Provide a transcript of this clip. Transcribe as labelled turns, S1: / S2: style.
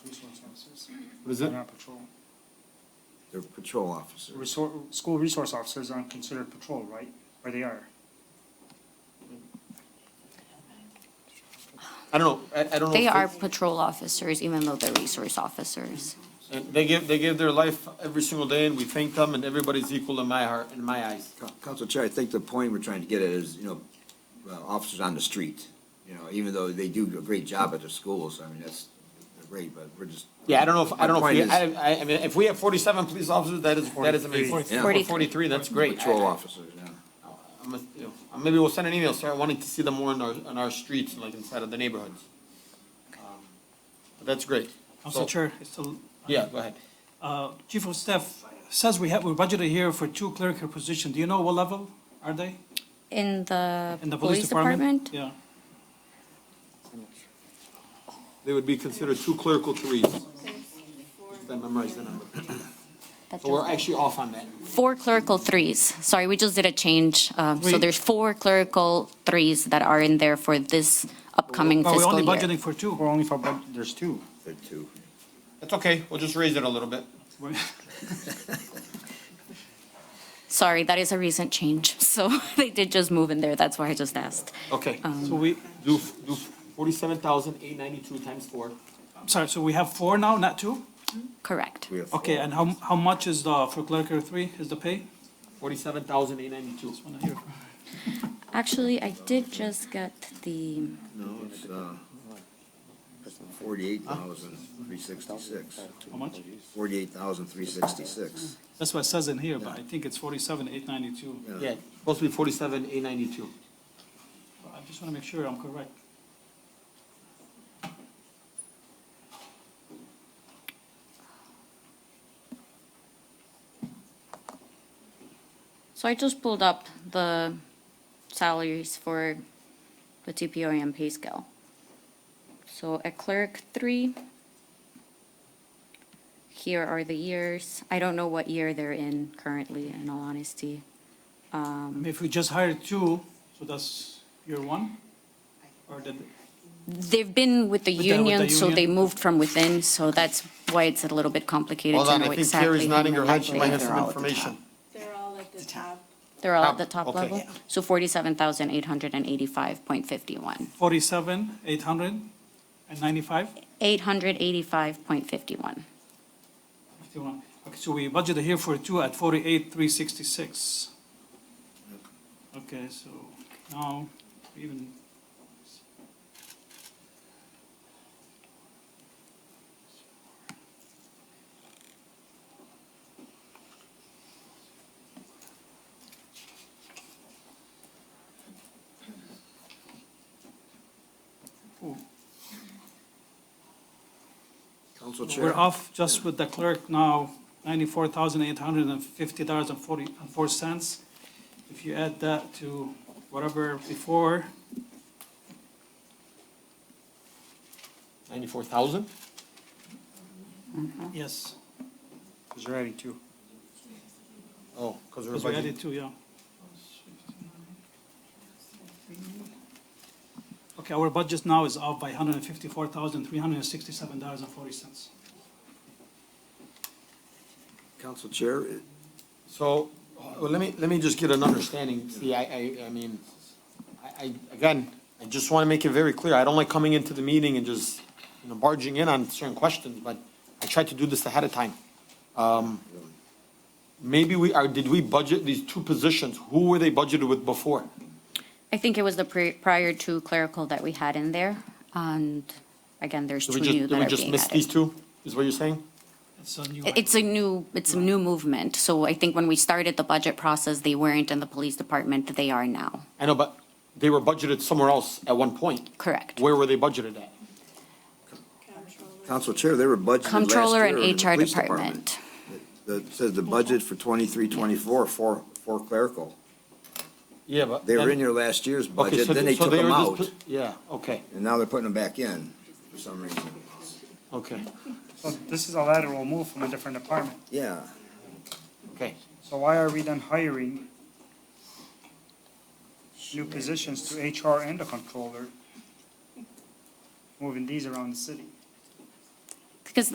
S1: Was it?
S2: They're not patrol.
S3: They're patrol officers.
S2: Resor- School resource officers aren't considered patrol, right? Or they are?
S1: I don't know, I, I don't know.
S4: They
S1: if
S4: are patrol officers, even though they're resource officers.
S1: And they give, they give their life every single day, and we thank them, and everybody's equal in my heart, in my eyes.
S3: Coun- Council Chair, I think the point we're trying to get at is, you know, uh, officers on the street, you know, even though they do a great job at the schools, I mean, that's they're great, but we're just.
S1: Yeah, I don't know if, I don't know if, we-
S3: My point
S1: I, I, I mean, if we have forty-seven police officers, that is, that is amazing.
S4: 43.
S3: Yeah.
S1: Or Forty-three, that's great.
S3: is Patrol
S1: I- I-
S3: officers, yeah.
S1: I'm a- you know, Maybe we'll send an email, start wanting to see them more in our, on our streets, like inside of the neighborhoods. Um, But that's great.
S5: Council
S1: So-
S5: Chair, it's still-
S1: Yeah, go ahead.
S5: uh, Chief of Staff says we have, we budgeted here for two clerical positions. Do you know what level are they?
S4: In the
S5: In the
S4: police department?
S5: Yeah.
S1: They would be considered two clerical threes. If I memorize the number.
S4: That
S1: So we're
S4: does-
S1: actually off on that.
S4: Four clerical threes. Sorry, we just did a change. Um, So
S5: We-
S4: there's four clerical threes that are in there for this upcoming
S5: But we're
S4: fiscal
S5: only
S4: year.
S5: budgeting for two.
S2: We're only for, bud- there's two.
S3: They're two.
S1: That's okay, we'll just raise it a little bit.
S5: We're-
S4: Sorry, that is a recent change. So they did just move in there. That's why I just asked.
S1: Okay.
S5: So we,
S1: Do, f- do forty-seven thousand eight ninety-two times four.
S5: I'm sorry, so we have four now, not two?
S4: Correct.
S3: We have four.
S5: Okay, and how, how much is the, for clerical three, is the pay?
S1: Forty-seven thousand eight ninety-two.
S4: Actually, I did just get the,
S3: No, it's, uh, forty-eight thousand, three sixty-six.
S5: How much?
S3: Forty-eight thousand, three sixty-six.
S5: That's what it says in here, but I think it's forty-seven, eight ninety-two.
S1: Yeah, it's supposed to be forty-seven eight ninety-two.
S5: I just want to make sure I'm correct.
S4: so I just pulled up the salaries for the TPOM pay scale. So at clerk three, here are the years. I don't know what year they're in currently, in all honesty.
S5: I mean, If we just hired two, so that's year one? Or did,
S4: They've been with the
S5: With the- with the
S4: union, so they
S5: union?
S4: moved from within, so that's why it's a little bit complicated
S1: Hold
S4: to
S1: on,
S4: know
S1: I think
S4: exactly.
S1: Carrie's nodding her head, she
S4: how
S1: might
S4: much
S1: have
S4: they're
S1: some
S4: all at the top.
S1: information.
S6: They're all at the top.
S4: They're all at the
S1: Top,
S4: top
S1: okay.
S4: level, so forty-seven thousand eight hundred and eighty-five point fifty-one.
S5: Forty-seven, eight hundred and ninety-five,
S4: 885.51.
S5: fifty-one. Okay, so we budgeted here for two at forty-eight, three sixty-six. Okay, so now, we even. Ooh.
S3: Council Chair,
S5: We're off just with the clerk now, ninety-four thousand eight hundred and fifty dollars and forty, and four cents. If you add that to whatever before,
S1: Ninety-four thousand?
S5: yes,
S2: Because you're adding two.
S1: Oh, because we're
S5: because we
S1: budgeting.
S5: added two, yeah. Okay, our budget now is off by hundred and fifty-four thousand three hundred and sixty-seven dollars and forty cents.
S3: Council Chair, it-
S1: So, uh, well, let me, let me just get an understanding, see, I, I, I mean, I, I, again, I just wanna make it very clear, I don't like coming into the meeting and just, you know, barging in on certain questions, but I tried to do this ahead of time. Um, maybe we, are, did we budget these two positions, who were they budgeted with before?
S4: I think it was the pri- prior to clerical that we had in there, and again, there's
S1: Did
S4: two
S1: we just,
S4: new
S1: did we
S4: that are
S1: just
S4: being
S1: miss these
S4: added.
S1: two, is what you're saying?
S5: It's a new.
S4: It- It's a new, it's a new movement, so I think when we started the budget process, they weren't in the police department, they are now,
S1: I know, but they were budgeted somewhere else at one point.
S4: correct?
S1: Where were they budgeted at?
S3: Council Chair, they were budgeted last year.
S4: Controller and
S3: in the
S4: HR
S3: police
S4: department.
S3: That says the budget for twenty-three, twenty-four, four, four clerical.
S1: Yeah, but.
S3: They were
S1: then-
S3: in your last year's
S1: Okay,
S3: budget,
S1: so
S3: then they
S1: so
S3: took them
S1: were just
S3: out,
S1: put- Yeah, okay,
S3: and now they're putting them back in for some reason.
S1: okay,
S2: So this is a lateral move from a different department.
S3: Yeah,
S1: okay.
S2: So why are we then hiring new positions to HR and a controller? Moving these around the city.